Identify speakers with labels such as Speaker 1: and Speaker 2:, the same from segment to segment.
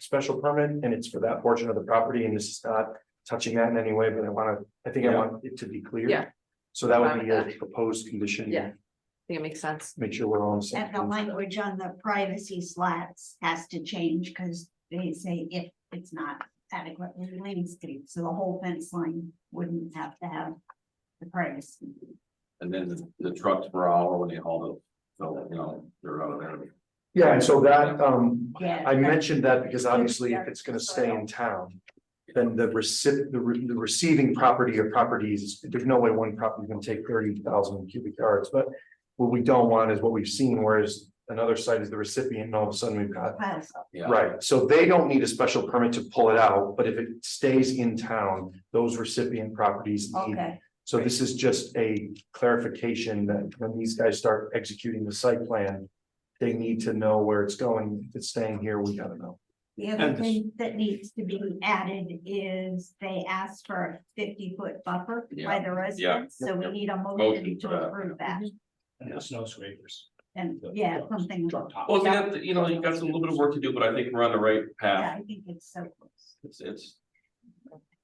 Speaker 1: special permit and it's for that portion of the property and this is not touching that in any way, but I wanna, I think I
Speaker 2: Yeah.
Speaker 1: want it to be clear.
Speaker 3: Yeah.
Speaker 1: So that
Speaker 3: Fine
Speaker 1: would be
Speaker 3: with
Speaker 1: a proposed condition.
Speaker 3: Yeah. think it makes sense.
Speaker 1: Make sure we're all on the same.
Speaker 4: And the
Speaker 1: page.
Speaker 4: language on the privacy slats has to change because they say if it's not adequately landscaped, so the whole fence line wouldn't have to have the privacy.
Speaker 2: And then the- the trucks were all when they hauled it, so, you know, they're out of there.
Speaker 1: Yeah, and so that, um,
Speaker 4: Yeah.
Speaker 1: I mentioned that because obviously if it's gonna stay in town. Then the recip, the re- the receiving property or properties, there's no way one property is gonna take thirty thousand cubic yards, but. What we don't want is what we've seen, whereas another site is the recipient and all of a sudden we've got,
Speaker 4: Files.
Speaker 2: Yeah.
Speaker 1: right, so they don't need a special permit to pull it out, but if it stays in town, those recipient properties. need-
Speaker 4: Okay,
Speaker 1: So this is just a clarification that when these guys start executing the site plan. They need to know where it's going. If it's staying here, we gotta know.
Speaker 4: the other
Speaker 2: And-
Speaker 4: thing that needs to be added is they asked for a fifty foot buffer by the residents, so we
Speaker 2: Yep.
Speaker 4: need a
Speaker 2: Motion
Speaker 4: motion
Speaker 2: for
Speaker 4: to
Speaker 2: that.
Speaker 4: approve that.
Speaker 5: and the snow scrapers.
Speaker 4: And yeah, something.
Speaker 5: Truck top.
Speaker 2: Well, you got, you know, you got a little bit of work to do, but I think we're on the right
Speaker 4: Yeah,
Speaker 2: path.
Speaker 4: I think it's so close.
Speaker 2: It's, it's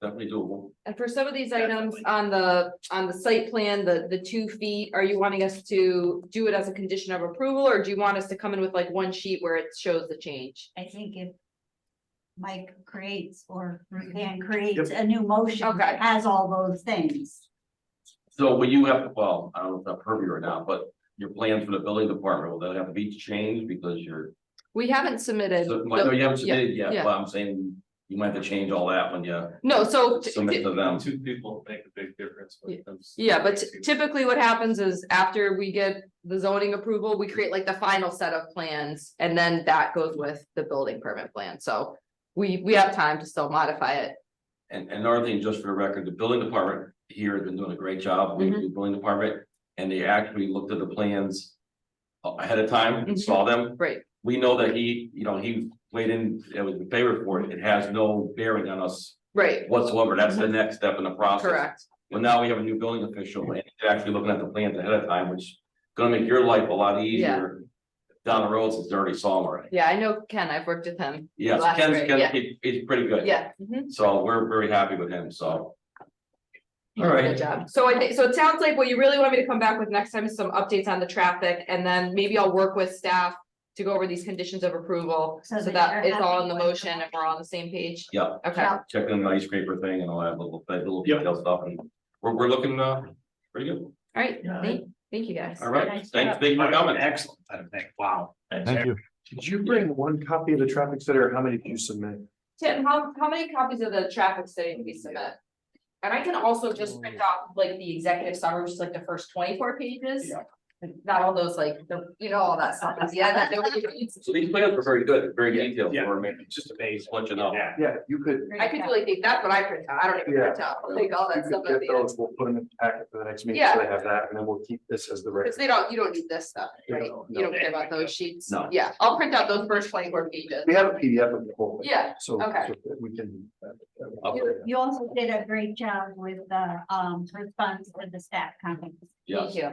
Speaker 2: definitely doable.
Speaker 3: And for some of these items on the, on the site plan, the, the two feet, are you wanting us to do it as a condition of approval? Or do you want us to come in with like one sheet where it shows the change?
Speaker 4: I think if Mike creates or Ruthann creates a new motion
Speaker 3: Mm-hmm. Okay.
Speaker 4: that has all those things.
Speaker 2: So will you have, well, I don't know if that's pervy or not, but your plans for the building department, will that have to be changed because you're.
Speaker 3: We haven't submitted.
Speaker 2: So, well, No, you haven't submitted yet,
Speaker 3: Uh, yeah.
Speaker 2: but I'm saying you might have to change all that when you
Speaker 3: No, so. t-
Speaker 2: submit to them.
Speaker 6: Two people make a big difference when it comes. to-
Speaker 3: Yeah, but typically what happens is after we get the zoning approval, we create like the final set of plans. And then that goes with the building permit plan, so we, we have time to still modify it.
Speaker 2: And and another thing, just for the record, the building department here has been doing a great job, we
Speaker 3: Mm-hmm.
Speaker 2: do building department, and they actually looked at the plans. a- Ahead of time,
Speaker 3: Mhm.
Speaker 2: saw them,
Speaker 3: Great,
Speaker 2: we know that he, you know, he weighed in, it was in favor for it, it has no bearing on us
Speaker 3: right,
Speaker 2: whatsoever, that's the next step in the process.
Speaker 3: Mm-hmm. correct.
Speaker 2: Well, now we have a new building official, and he's actually looking at the plans ahead of time, which is gonna make your life a lot easier. Down the road, since they already saw him already,
Speaker 3: Yeah, I know Ken, I've worked with him,
Speaker 2: yes,
Speaker 3: Last
Speaker 2: Ken's,
Speaker 3: grade,
Speaker 2: Ken's,
Speaker 3: yeah.
Speaker 2: he- he's pretty good.
Speaker 3: yeah. mhm.
Speaker 2: So we're very happy with him, so. All
Speaker 3: Good
Speaker 2: right,
Speaker 3: job. So I think, so it sounds like what you really want me to come back with next time is some updates on the traffic and then maybe I'll work with staff to go over these conditions of approval.
Speaker 4: So
Speaker 3: So
Speaker 4: that
Speaker 3: that
Speaker 4: you're
Speaker 3: it's all in
Speaker 4: happy
Speaker 3: the
Speaker 4: with
Speaker 3: motion
Speaker 4: the-
Speaker 3: and we're on the same page.
Speaker 2: yeah,
Speaker 3: Okay,
Speaker 4: Yeah.
Speaker 2: check in the ice scraper thing and all that little, that little
Speaker 1: Yep.
Speaker 2: detail stuff, and we're, we're looking, uh, pretty good,
Speaker 3: all right,
Speaker 1: Yeah.
Speaker 3: thank, thank you guys.
Speaker 2: all right, thanks, thank you for coming.
Speaker 5: Excellent, I think, wow.
Speaker 6: Thank
Speaker 5: you.
Speaker 1: Did you bring one copy of the traffic study or how many did you submit?
Speaker 3: Tim, how, how many copies of the traffic study did we submit? And I can also just print off like the executive summary, which is like the first twenty-four pages.
Speaker 2: Yeah.
Speaker 3: Not all those like, the- you know, all that stuff, yeah, that, that-
Speaker 2: So these plans were very good, very detailed,
Speaker 5: Yeah,
Speaker 2: we're making,
Speaker 5: just amazing.
Speaker 2: just let you know.
Speaker 5: Yeah.
Speaker 1: Yeah, you could.
Speaker 3: I could really think that's what I print out, I don't even print out, like all
Speaker 1: you
Speaker 3: that stuff
Speaker 1: could
Speaker 3: at
Speaker 1: get
Speaker 3: the end.
Speaker 1: those. We'll put them in the packet for the next meeting, so they have that, and then we'll keep this as the
Speaker 3: Cause
Speaker 1: record.
Speaker 3: they don't, you don't need this stuff, right?
Speaker 1: No,
Speaker 3: You don't care about those sheets.
Speaker 2: No.
Speaker 3: Yeah, I'll print out those first twenty-four pages.
Speaker 1: We have a PDF of the whole thing.
Speaker 3: Yeah,
Speaker 1: So
Speaker 3: okay.
Speaker 1: so we can. uh, uh,
Speaker 4: You, you also did a great job with the, um, response with the staff comments.
Speaker 2: Yes,
Speaker 3: thank you.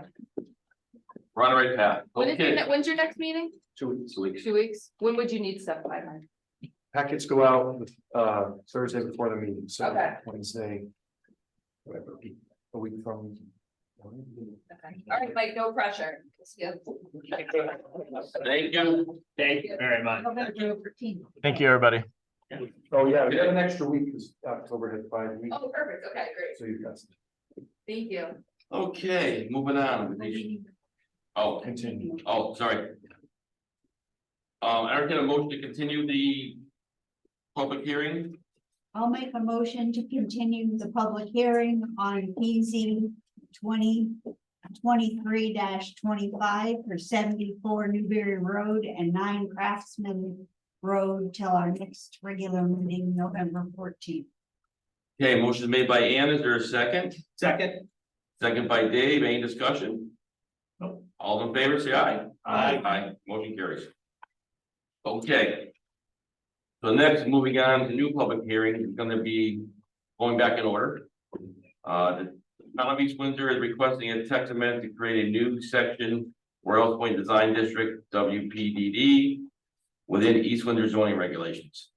Speaker 2: we're on the right path,
Speaker 3: When is your,
Speaker 2: okay,
Speaker 3: ne- when's your next meeting?
Speaker 2: two weeks, two weeks,
Speaker 3: Two weeks? When would you need stuff by then?
Speaker 1: Packets go out uh Thursday before the meeting, so
Speaker 3: Okay.
Speaker 1: Wednesday. Whatever, a week from.
Speaker 3: Okay. All right, Mike, no pressure. Let's go.
Speaker 2: thank you.
Speaker 5: Thank you very much.
Speaker 6: Thank you, everybody.
Speaker 1: Oh, yeah, we got an extra week because October had five weeks,
Speaker 3: Oh, perfect. Okay, great.
Speaker 1: so you've got some-
Speaker 3: Thank you.
Speaker 2: Okay, moving on. Oh,
Speaker 1: continue.
Speaker 2: oh, sorry. Um, I entertain a motion to continue the public hearing.
Speaker 4: I'll make a motion to continue the public hearing on PZ twenty twenty-three twenty-five for seventy-four Newberry Road and nine Craftsman Road till our next regular meeting, November fourteenth.
Speaker 2: Okay, motion made by Ann. Is there a second?
Speaker 5: Second.
Speaker 2: Second by Dave. Any discussion?
Speaker 5: Nope.
Speaker 2: All in favor, say aye.
Speaker 5: Aye.
Speaker 2: Aye, motion carries. Okay. So next, moving on to new public hearing is gonna be going back in order. Uh, the town of East Windsor is requesting a text amendment to create a new section Royal Point Design District, WPDD, within East Windsor zoning regulations.